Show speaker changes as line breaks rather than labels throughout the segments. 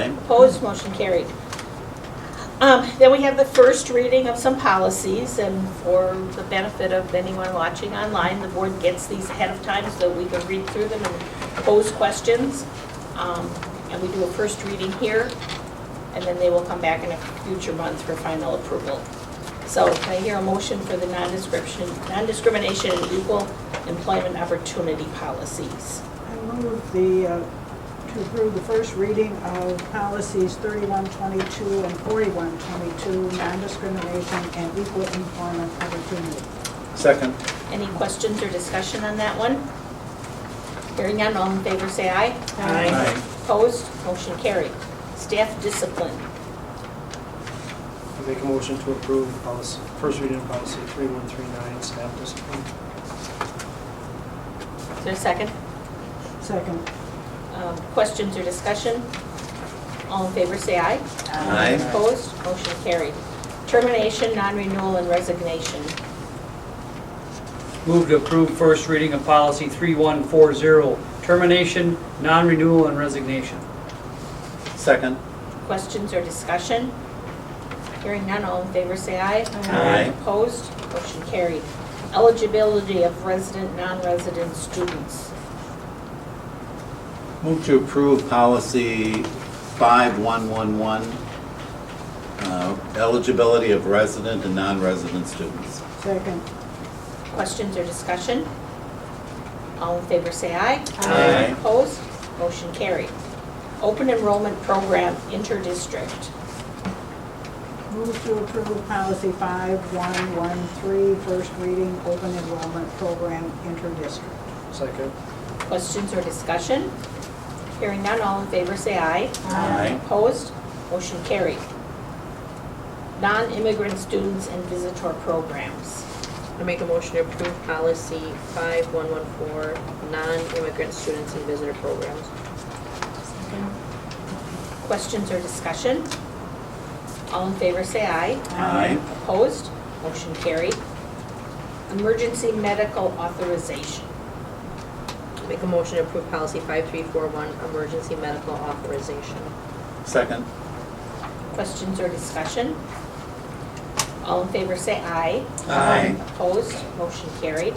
Opposed, motion carried. Um, Then we have the first reading of some policies, and for the benefit of anyone watching online, the board gets these ahead of time so we can read through them and pose questions. Um, And we do a first reading here, and then they will come back in a future month for final approval. So can I hear a motion for the non-description, non-discrimination and equal employment opportunity policies?
I move the, uh, to approve the first reading of policies 3122 and 4122, non-discrimination and equal employment opportunity.
Second.
Any questions or discussion on that one? Hearing none, all in favor say aye.
Aye.
Opposed, motion carried. Staff discipline.
I make a motion to approve policy, first reading of policy 3139, staff discipline.
Is there a second?
Second.
Um, Questions or discussion? All in favor say aye.
Aye.
Opposed, motion carried. Termination, non-renewal, and resignation.
Move to approve first reading of policy 3140, termination, non-renewal, and resignation.
Second.
Questions or discussion? Hearing none, all in favor say aye.
Aye.
Opposed, motion carried. Eligibility of resident, non-resident students.
Move to approve policy 5111, uh, eligibility of resident and non-resident students.
Second.
Questions or discussion? All in favor say aye.
Aye.
Opposed? Motion carried. Open enrollment program interdistrict.
Move to approve policy 5113, first reading, open enrollment program, interdistrict.
Second.
Questions or discussion? Hearing none, all in favor say aye.
Aye.
Opposed? Motion carried. Non-immigrant students and visitor programs.
I make a motion to approve policy 5114, non-immigrant students and visitor programs.
Questions or discussion? All in favor say aye.
Aye.
Opposed? Motion carried. Emergency medical authorization.
I Make a motion to approve policy 5341, emergency medical authorization.
Second.
Questions or discussion? All in favor say aye.
Aye.
Opposed? Motion carried.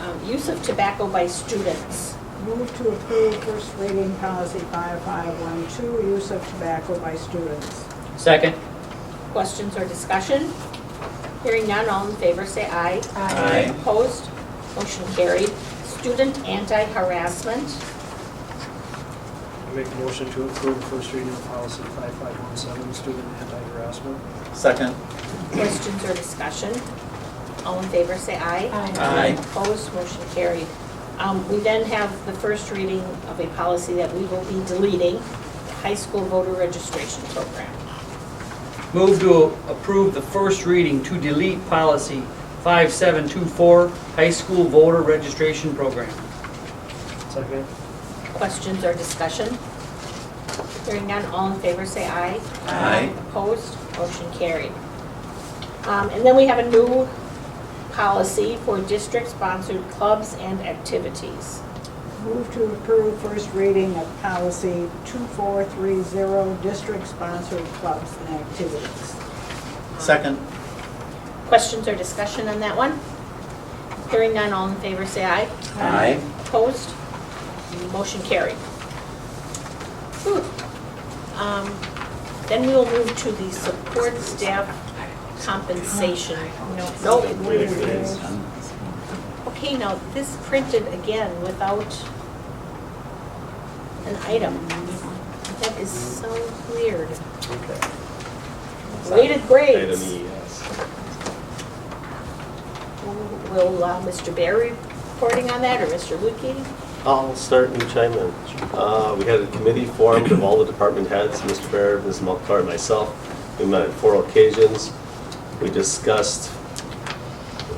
Um, Use of tobacco by students.
Move to approve first reading policy 5512, use of tobacco by students.
Second.
Questions or discussion? Hearing none, all in favor say aye.
Aye.
Opposed? Motion carried. Student anti-harassment.
I make a motion to approve first reading of policy 5517, student anti-harassment.
Second.
Questions or discussion? All in favor, say aye.
Aye.
Opposed, motion carried. Um, We then have the first reading of a policy that we will be deleting, the high school voter registration program.
Move to approve the first reading to delete policy 5724, high school voter registration program.
Second.
Questions or discussion? Hearing none, all in favor, say aye.
Aye.
Opposed, motion carried. Um, And then we have a new policy for district-sponsored clubs and activities.
Move to approve first reading of policy 2430, district-sponsored clubs and activities.
Second.
Questions or discussion on that one? Hearing none, all in favor, say aye.
Aye.
Opposed? Motion carried. Whew. Um, Then we will move to the support staff compensation. No, no. Okay, now, this printed again without an item. That is so weird. Weighted grades.
Item E, yes.
Will uh, Mr. Barry reporting on that, or Mr. Lukey?
I'll start and chime in. Uh, We had a committee formed of all the department heads, Mr. Baird, Ms. Mulcair, and myself. We met on four occasions. We discussed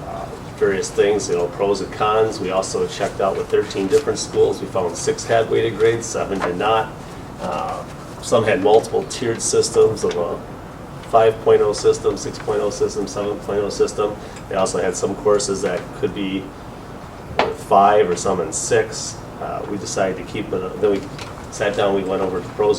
uh, various things, you know, pros and cons. We also checked out with 13 different schools. We found six had weighted grades, seven did not. Uh, Some had multiple tiered systems of a 5.0 system, 6.0 system, 7.0 system. They also had some courses that could be or five or some in six. Uh, We decided to keep it, then we sat down, we went over the pros and